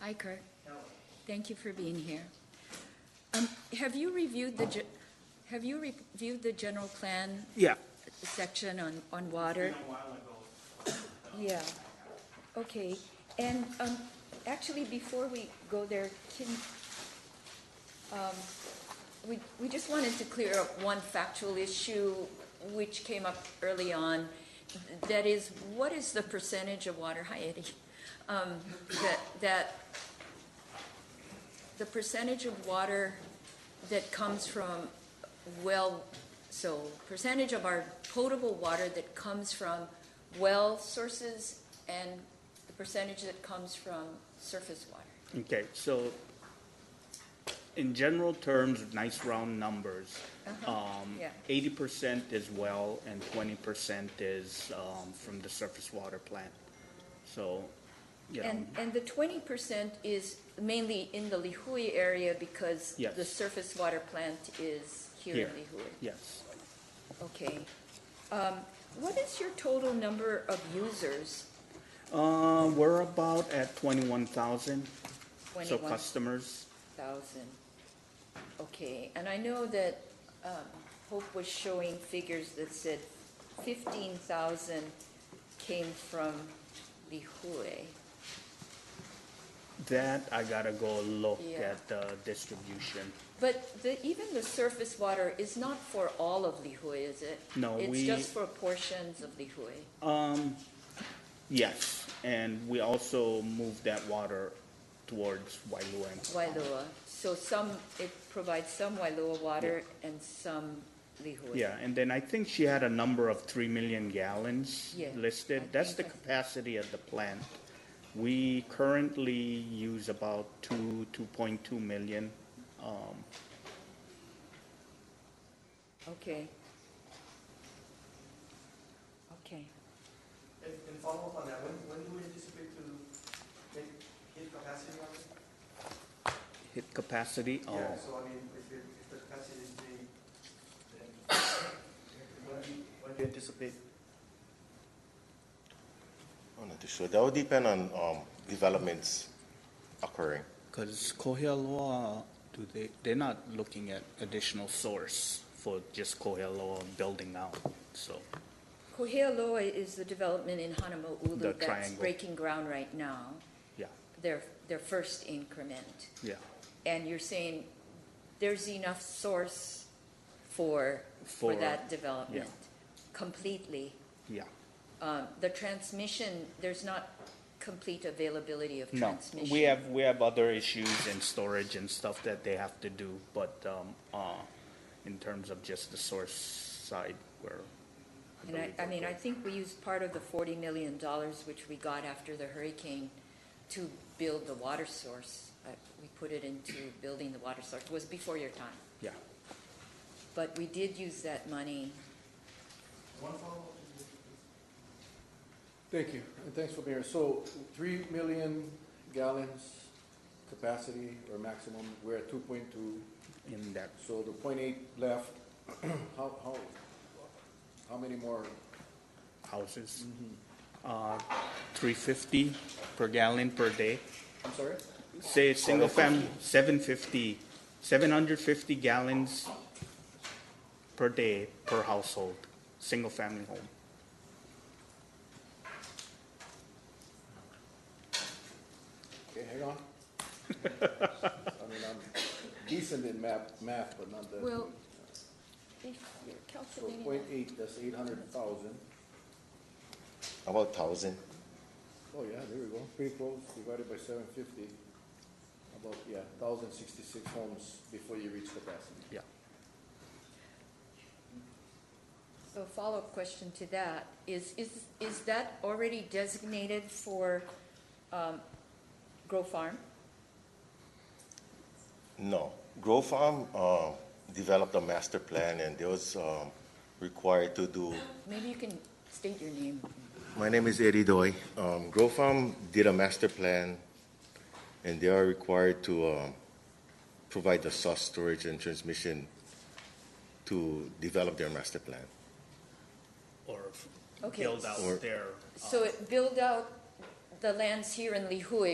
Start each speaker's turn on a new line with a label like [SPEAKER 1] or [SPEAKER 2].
[SPEAKER 1] Hi, Kurt. Thank you for being here. Um, Have you reviewed the, ge- have you reviewed the general plan
[SPEAKER 2] Yeah,
[SPEAKER 1] section on, on water? Yeah, okay, and, um, actually, before we go there, can, um, we, we just wanted to clear up one factual issue which came up early on. That is, what is the percentage of water, hi Eddie, um, that, that, the percentage of water that comes from well, so percentage of our potable water that comes from well sources and the percentage that comes from surface water.
[SPEAKER 2] okay, so in general terms, nice round numbers. Um,
[SPEAKER 1] yeah.
[SPEAKER 2] eighty percent is well and twenty percent is, um, from the surface water plant. So, you know,
[SPEAKER 1] And, and the twenty percent is mainly in the Lihui area because
[SPEAKER 2] Yes.
[SPEAKER 1] the surface water plant is here in
[SPEAKER 2] Here.
[SPEAKER 1] Lihui.
[SPEAKER 2] yes,
[SPEAKER 1] Okay. Um, what is your total number of users?
[SPEAKER 2] uh, we're about at twenty-one thousand, so
[SPEAKER 1] Twenty-one
[SPEAKER 2] customers,
[SPEAKER 1] thousand. Okay, and I know that, um, Hope was showing figures that said fifteen thousand came from Lihue.
[SPEAKER 2] that I gotta go look
[SPEAKER 1] Yeah.
[SPEAKER 2] at the distribution.
[SPEAKER 1] But the, even the surface water is not for all of Lihue, is it?
[SPEAKER 2] No,
[SPEAKER 1] It's
[SPEAKER 2] we-
[SPEAKER 1] just for portions of Lihue.
[SPEAKER 2] Yes, and we also move that water towards Wailua.
[SPEAKER 1] Wailoa. So some, it provides some Wailoa water and some Lihue.
[SPEAKER 2] Yeah, and then I think she had a number of three million gallons
[SPEAKER 1] Yeah,
[SPEAKER 2] listed.
[SPEAKER 1] I
[SPEAKER 2] That's the
[SPEAKER 1] think I-
[SPEAKER 2] capacity of the plant. We currently use about two, two point two million. Um,
[SPEAKER 1] Okay. Okay.
[SPEAKER 3] And, and follow up on that, when, when do we anticipate to hit, hit capacity on it?
[SPEAKER 2] hit capacity,
[SPEAKER 3] Yeah,
[SPEAKER 2] oh,
[SPEAKER 3] so I mean, if, it- if the capacity is being, then, when do, you- when do you anticipate?
[SPEAKER 4] I'm Oh, not too sure. That would depend on um, developments occurring.
[SPEAKER 2] because Kohialoa, do they, they're not looking at additional source for just Kohialoa building out, so.
[SPEAKER 1] Kohealoa is the development in
[SPEAKER 2] The
[SPEAKER 1] Honolulu that's
[SPEAKER 2] triangle.
[SPEAKER 1] breaking ground right now,
[SPEAKER 2] Yeah,
[SPEAKER 1] their, their first increment.
[SPEAKER 2] yeah,
[SPEAKER 1] And you're saying there's enough source for, for
[SPEAKER 2] For-
[SPEAKER 1] that development? Completely.
[SPEAKER 2] yeah.
[SPEAKER 1] Um, The transmission, there's not complete availability of
[SPEAKER 2] No,
[SPEAKER 1] transmission.
[SPEAKER 2] we have, we have other issues and storage and stuff that they have to do, but, um, uh, in terms of just the source side, where.
[SPEAKER 1] And I, I mean, I think we used part of the forty million dollars which we got after the hurricane to build the water source. Uh, We put it into building the water source, It was before your time.
[SPEAKER 2] Yeah,
[SPEAKER 1] But we did use that money.
[SPEAKER 3] One follow-up?
[SPEAKER 5] Thank you, and thanks for being here. So, three million gallons capacity or maximum, we're at two point two,
[SPEAKER 2] in that,
[SPEAKER 5] so the point eight left, how, how, how many more?
[SPEAKER 2] houses. Uh, three fifty per gallon per day.
[SPEAKER 5] I'm sorry?
[SPEAKER 2] Say, single family, seven fifty, seven hundred fifty gallons per day per household, single family home.
[SPEAKER 5] Okay, hang on. I mean, I'm decent in math, math, but not that.
[SPEAKER 1] Well,
[SPEAKER 5] So point eight, that's eight hundred thousand.
[SPEAKER 4] About 1,000.
[SPEAKER 5] Oh, yeah, there we go, pretty close, divided by seven fifty, about, yeah, thousand sixty-six homes before you reach capacity.
[SPEAKER 2] Yeah,
[SPEAKER 1] So a follow-up question to that is, is, is that already designated for, um, Grow Farm?
[SPEAKER 4] No. Grow Farm um, developed a master plan and they was um, required to do.
[SPEAKER 1] Maybe you can state your name.
[SPEAKER 4] My name is Eddie Doi. Um, Grow Farm did a master plan and they are required to um, provide the source storage and transmission to develop their master plan.
[SPEAKER 2] or
[SPEAKER 1] Okay.
[SPEAKER 2] build out
[SPEAKER 4] Or-
[SPEAKER 2] their.
[SPEAKER 1] So it build out the lands here in Lihue